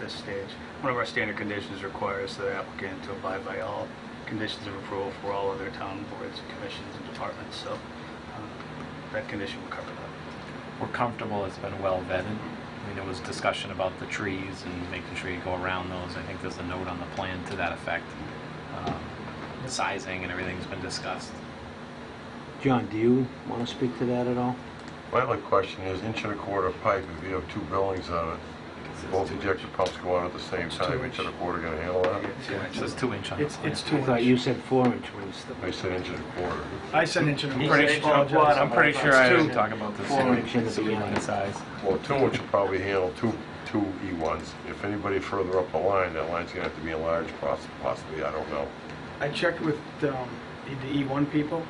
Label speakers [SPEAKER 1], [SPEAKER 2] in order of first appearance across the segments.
[SPEAKER 1] this stage. One of our standard conditions requires the applicant to abide by all conditions of approval for all other town boards, commissions, and departments, so uh, that condition will cover that.
[SPEAKER 2] We're comfortable, it's been well vetted. I mean, there was discussion about the trees and making sure you go around those. I think there's a note on the plan to that effect. Um, Sizing and everything's been discussed.
[SPEAKER 3] John, do you want to speak to that at all?
[SPEAKER 4] My other question is inch and a quarter pipe, if you have two buildings on it, both ejector pumps go out at the same time, inch and a quarter gonna handle that?
[SPEAKER 2] It says two inch on the
[SPEAKER 5] It's,
[SPEAKER 2] plan.
[SPEAKER 5] it's two
[SPEAKER 3] I thought
[SPEAKER 5] inch.
[SPEAKER 3] you said four inch was the,
[SPEAKER 4] I said inch and a quarter.
[SPEAKER 5] I said inch and a
[SPEAKER 2] I'm
[SPEAKER 5] quarter.
[SPEAKER 2] pretty sure, I'm pretty sure I was talking about this.
[SPEAKER 3] Four inch in the beginning.
[SPEAKER 2] Size.
[SPEAKER 4] Well, two inch will probably handle two, two E1s. If anybody further up the line, that line's gonna have to be enlarged poss- possibly, I don't know.
[SPEAKER 5] I checked with um, the E1 people,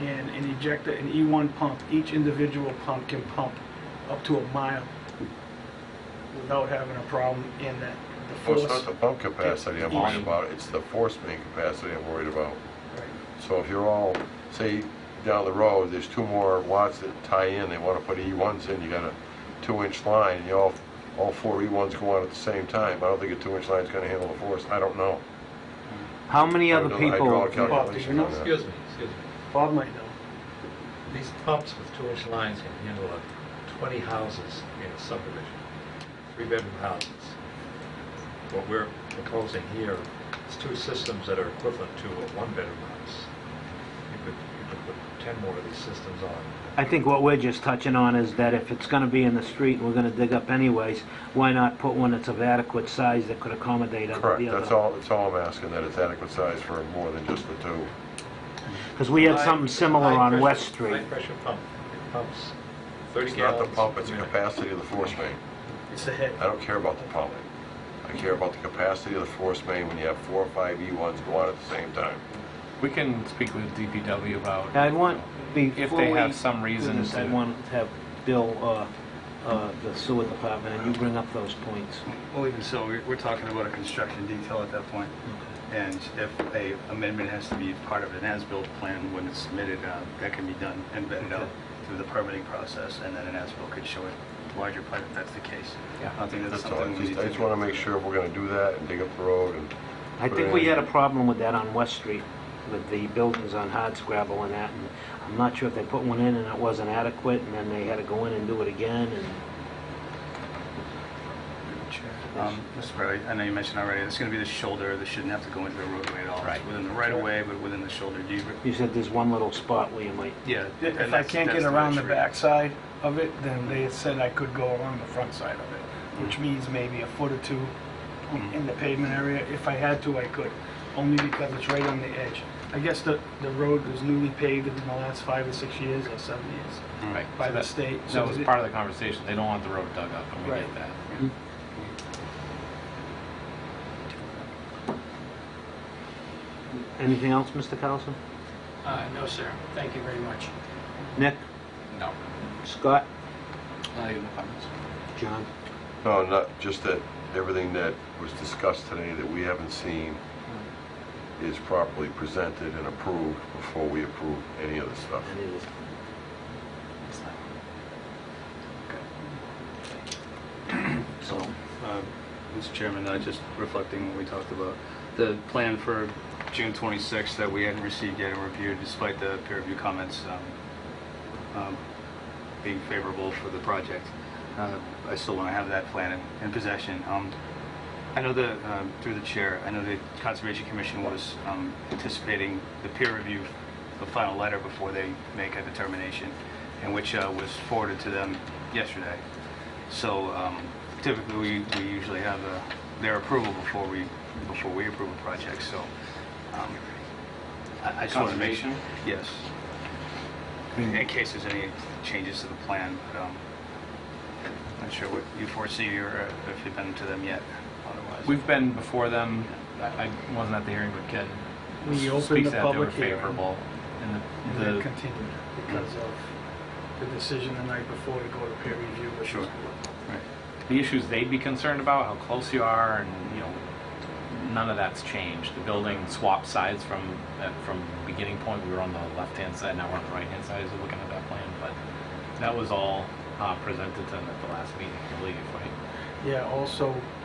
[SPEAKER 5] and an ejector, an E1 pump, each individual pump can pump up to a mile without having a problem in that, the
[SPEAKER 4] Well,
[SPEAKER 5] force.
[SPEAKER 4] Oh, it's not the pump capacity I'm worried
[SPEAKER 2] Each.
[SPEAKER 4] about, it's the force main capacity I'm worried about.
[SPEAKER 5] Right.
[SPEAKER 4] So if you're all, say, down the road, there's two more lots that tie in, they want to put E1s in, you got a two-inch line, and you all, all four E1s go on at the same time, I don't think a two-inch line's gonna handle the force, I don't know.
[SPEAKER 3] how many
[SPEAKER 4] I
[SPEAKER 3] other
[SPEAKER 4] don't know the hydraulic
[SPEAKER 3] people,
[SPEAKER 4] calculation
[SPEAKER 5] know?
[SPEAKER 4] on that.
[SPEAKER 6] Excuse me, excuse me.
[SPEAKER 5] Bob might know.
[SPEAKER 6] These pumps with two-inch lines can handle up to 20 houses in a subdivision, three-bedroom houses. What we're proposing here is two systems that are equivalent to a one-bedroom house. You could, you could put 10 more of these systems on.
[SPEAKER 3] I think what we're just touching on is that if it's going to be in the street and we're going to dig up anyways, why not put one that's of adequate size that could accommodate other- the other?
[SPEAKER 4] Correct, that's all, that's all I'm asking, that it's adequate size for more than just the two.
[SPEAKER 3] Because we had something similar on
[SPEAKER 6] High-pressure-
[SPEAKER 3] West Street.
[SPEAKER 6] High-pressure pump, it pumps 30
[SPEAKER 4] It's not
[SPEAKER 6] gallons.
[SPEAKER 4] the pump, it's
[SPEAKER 6] a
[SPEAKER 4] the
[SPEAKER 6] minute.
[SPEAKER 4] capacity of the force main.
[SPEAKER 5] It's the head.
[SPEAKER 4] I don't care about the pump. I care about the capacity of the force main when you have four or five E1s go on at the same time.
[SPEAKER 2] We can speak with DPW about.
[SPEAKER 3] I want, before we...
[SPEAKER 2] have some reason
[SPEAKER 3] do this, I
[SPEAKER 2] to-
[SPEAKER 3] want to have Bill, uh, uh, the sewer department, and you bring up those points.
[SPEAKER 1] Well, even so, we're- we're talking about a construction detail at that point,
[SPEAKER 5] Hmm.
[SPEAKER 1] and if a amendment has to be part of an as-built plan when it's submitted, uh, that can be done and vetted out through the permitting process, and then an as-built could show a larger plan if that's the case.
[SPEAKER 2] Yeah.
[SPEAKER 1] I don't think that's
[SPEAKER 4] That's all, I
[SPEAKER 1] something we need
[SPEAKER 4] just,
[SPEAKER 1] to...
[SPEAKER 4] I just wanna make sure if we're gonna do that and dig up the road and
[SPEAKER 3] I
[SPEAKER 4] Put
[SPEAKER 3] think
[SPEAKER 4] it
[SPEAKER 3] we
[SPEAKER 4] in.
[SPEAKER 3] had a problem with that on West Street, with the buildings on Hardscrabble and that, and I'm not sure if they put one in and it wasn't adequate, and then they had to go in and do it again, and
[SPEAKER 1] Um, Mr. Bradley, I know you mentioned already, it's going to be the shoulder, this shouldn't have to go into the roadway at all.
[SPEAKER 2] Right.
[SPEAKER 1] It's Within the right-of-way, but within the shoulder, do you,
[SPEAKER 3] you said there's one little spot where you might,
[SPEAKER 1] yeah. and
[SPEAKER 5] If I
[SPEAKER 1] that's-
[SPEAKER 5] can't get
[SPEAKER 1] that's
[SPEAKER 5] around the
[SPEAKER 1] issue.
[SPEAKER 5] backside of it, then they said I could go along the front side of it, which means maybe a foot or two in the pavement area. If I had to, I could, only because it's right on the edge. I guess the, the road was newly paved in the last five or six years or seven years
[SPEAKER 1] Hmm.
[SPEAKER 2] Right.
[SPEAKER 5] by
[SPEAKER 2] So
[SPEAKER 5] the
[SPEAKER 2] that-
[SPEAKER 5] state.
[SPEAKER 2] That was part of the conversation. They don't want the road dug up, and we get
[SPEAKER 5] Right.
[SPEAKER 2] that.
[SPEAKER 3] anything else, Mr. Carlson?
[SPEAKER 7] Uh, No, sir. Thank you very much.
[SPEAKER 3] Nick?
[SPEAKER 2] No.
[SPEAKER 3] Scott? John?
[SPEAKER 4] No, not, just that everything that was discussed today that we haven't seen is properly presented and approved before we approve any of the stuff.
[SPEAKER 3] Any of this?
[SPEAKER 1] So, uh, Mr. Chairman, uh, just reflecting what we talked about, the plan for June 26th that we hadn't received yet and reviewed despite the peer review comments um, um, being favorable for the project, uh, I still want to have that plan in- in possession. Um, I know the, um, through the chair, I know the Conservation Commission was um, anticipating the peer review, the final letter before they make a determination, and which uh, was forwarded to them yesterday. So um, typically, we we usually have uh, their approval before we, before we approve a project, so um, I I just want to make...
[SPEAKER 2] Conservation?
[SPEAKER 1] Yes. In case there's any changes to the plan, but um, not sure what you foresee or uh, if you've been to them yet, otherwise.
[SPEAKER 2] We've been before them. I I wasn't at the hearing, but Ken
[SPEAKER 5] We opened
[SPEAKER 2] speaks
[SPEAKER 5] the
[SPEAKER 2] that they were
[SPEAKER 5] public hearing.
[SPEAKER 2] favorable. And
[SPEAKER 5] And
[SPEAKER 2] the-
[SPEAKER 5] then
[SPEAKER 2] the
[SPEAKER 5] continued because of the decision the night before to go to peer review. which
[SPEAKER 1] Sure.
[SPEAKER 5] was-
[SPEAKER 2] the issues they'd be concerned about, how close you are, and, you know, none of that's changed. The building swapped sides from, that- from beginning point, we were on the left-hand side, now we're on the right-hand side, as we're looking at that plan, but that was all uh, presented to them at the last meeting, I believe, right?
[SPEAKER 5] Yeah, also,